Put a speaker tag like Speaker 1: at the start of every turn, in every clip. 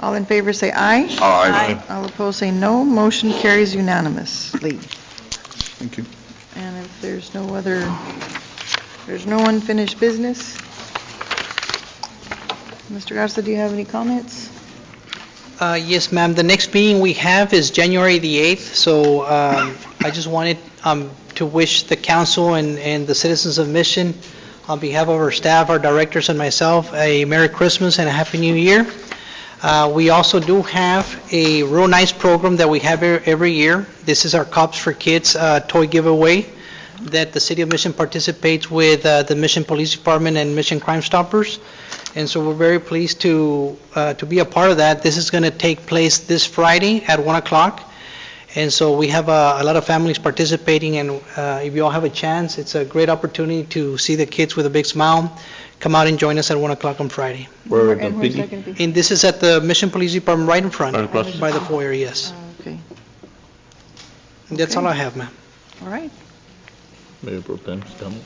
Speaker 1: All in favor, say aye.
Speaker 2: Aye.
Speaker 1: All opposed, say no. Motion carries unanimously.
Speaker 2: Thank you.
Speaker 1: And if there's no other, there's no unfinished business? Mr. Garza, do you have any comments?
Speaker 3: Uh, Yes, ma'am. The next meeting we have is January the 8th, so um, I just wanted um, to wish the council and and the citizens of Mission, on behalf of our staff, our directors, and myself, a Merry Christmas and a Happy New Year. Uh, We also do have a real nice program that we have e- every year. This is our Cops for Kids uh, toy giveaway that the city of Mission participates with uh, the Mission Police Department and Mission Crime Stoppers. And so we're very pleased to, uh, to be a part of that. This is going to take place this Friday at 1 o'clock. And so we have uh, a lot of families participating, and uh, if you all have a chance, it's a great opportunity to see the kids with a big smile. Come out and join us at 1 o'clock on Friday.
Speaker 4: Where
Speaker 1: And where's that gonna be?
Speaker 3: And this is at the Mission Police Department, right in front,
Speaker 4: Right across.
Speaker 3: by the foyer, yes.
Speaker 1: Okay,
Speaker 3: That's all I have, ma'am.
Speaker 1: all right.
Speaker 4: Mayor Pro Tem, Stamel,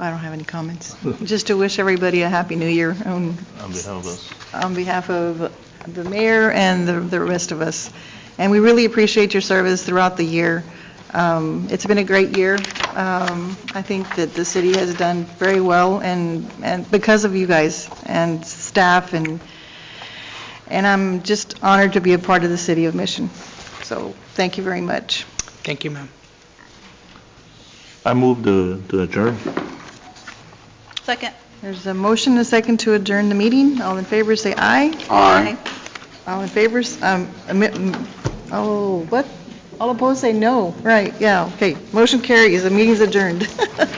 Speaker 1: I don't have any comments. Just to wish everybody a Happy New Year on
Speaker 4: on behalf of us.
Speaker 1: on behalf of the mayor and the- the rest of us. And we really appreciate your service throughout the year. Um, It's been a great year. Um, I think that the city has done very well, and and because of you guys and staff, and and I'm just honored to be a part of the city of Mission. So thank you very much.
Speaker 3: Thank you, ma'am.
Speaker 4: I move to to adjourn.
Speaker 5: Second.
Speaker 1: There's a motion and a second to adjourn the meeting. All in favor, say aye.
Speaker 5: Aye.
Speaker 1: All in favor, s- um, admit- mm, oh, what? All opposed, say no. Right, yeah, okay. Motion carries, the meeting's adjourned.